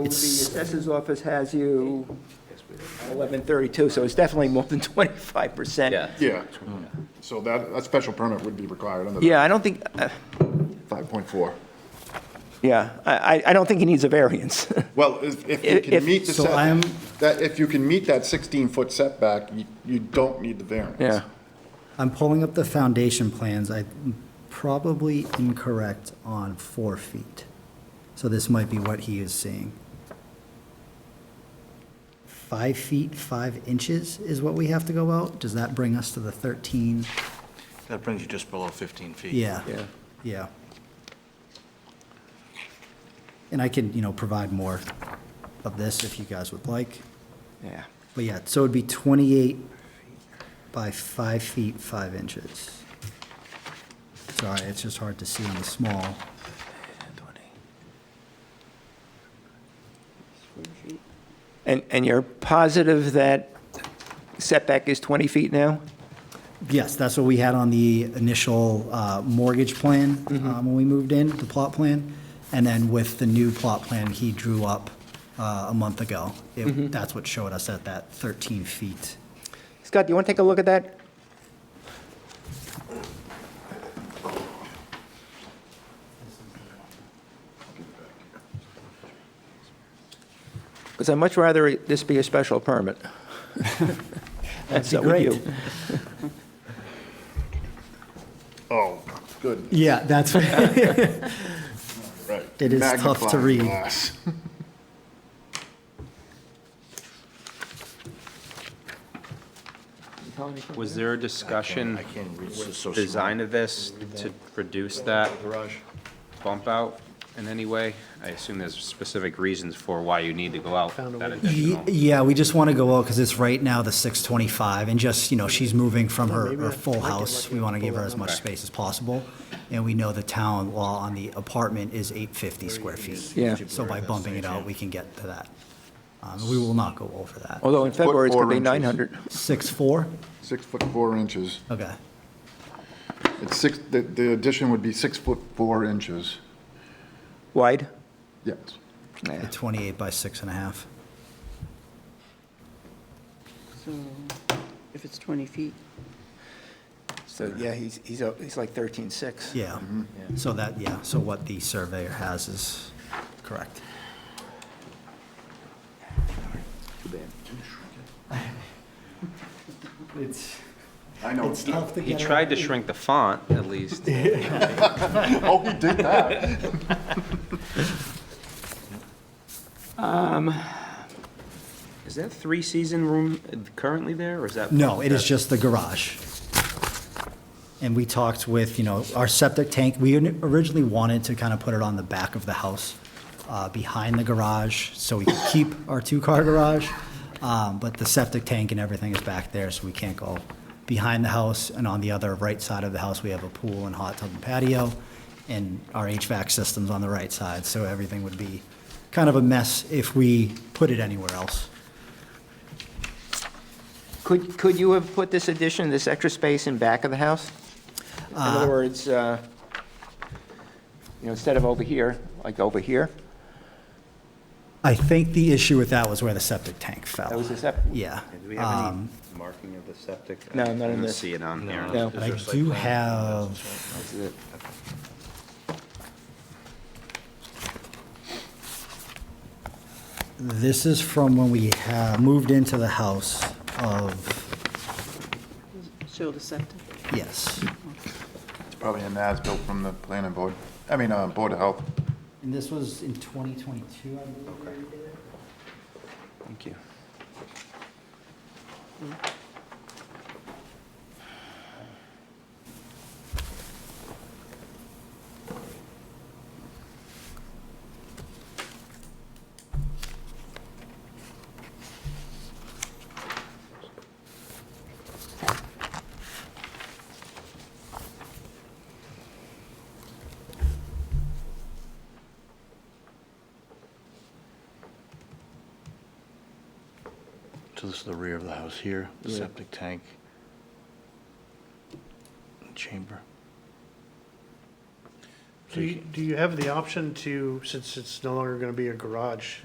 The assessor's office has you 1132, so it's definitely more than 25%. Yeah. Yeah, so that, that special permit would be required under Yeah, I don't think, uh, five point four. yeah, I, I- I don't think he needs a variance. Well, if, if you If- can meet the So I'm- set, that, if you can meet that sixteen foot setback, you, you don't need the variance. Yeah. I'm pulling up the foundation plans. I'm probably incorrect on four feet. So this might be what he is seeing. Five feet, five inches is what we have to go out? Does that bring us to the 13? That brings you just below 15 feet. Yeah, yeah. And I can, you know, provide more of this if you guys would like. Yeah. But yeah, so it'd be 28 by 5 feet, 5 inches. Sorry, it's just hard to see on the small. And, and you're positive that setback is 20 feet now? Yes, that's what we had on the initial uh, mortgage plan um, when we moved in, the plot plan. And then with the new plot plan he drew up uh, a month ago, it- that's what showed us at that 13 feet. Scott, do you want to take a look at that? Because I'd much rather this be a special permit. That's up with great. you. Oh, good, Yeah, that's, it right. It is tough to Magnifying read. glass. Was there a discussion, I can't reach this so small. design of this to reduce that bump out in any way? I assume there's specific reasons for why you need to go out that Ye- additional. Yeah, we just want to go out because it's right now the six twenty-five and just, you know, she's moving from her, her full house. We want to give her as much space as possible. And we know the town law on the apartment is eight fifty square feet. Yeah. So by bumping it out, we can get to that. Um, we will not go over that. Although in February, it's going to four be inches. 900. Six, four? Six foot four inches. Okay. It's six, the, the addition would be six foot four inches, Wide? yes. Yeah. Twenty-eight by six and a half. So if it's 20 feet, So, yeah, he's, he's a- he's like 13.6. Yeah. Mm-hmm. So that, yeah, so what the surveyor has is correct. It's. I know. It's tough to He get tried to shrink the font, at least. Oh, he did that. Is that three-season room currently there, or is that? No, it is just the garage. And we talked with, you know, our septic tank, we originally wanted to kind of put it on the back of the house, uh, behind the garage, so we could keep our two-car garage. Um, But the septic tank and everything is back there, so we can't go behind the house. And on the other right side of the house, we have a pool and hot tub and patio, and our HVAC system's on the right side, so everything would be kind of a mess if we put it anywhere else. Could, could you have put this addition, this extra space in back of the house? In other words, uh, you know, instead of over here, like over here, I think the issue with that was where the septic tank fell. that was a sep, Yeah. Do we have Um, any marking of the septic? No, not in I don't this. See it on here. no. I do have, this is from when we ha moved into the house of, show the septic. yes. It's probably an as-built from the planning board, I mean, uh, Board of Health. And this was in 2022, I believe. thank you. So this is the rear of the house here, the Yeah. septic tank, chamber. So Do you you, do you have the option to, since it's no longer going to be a garage,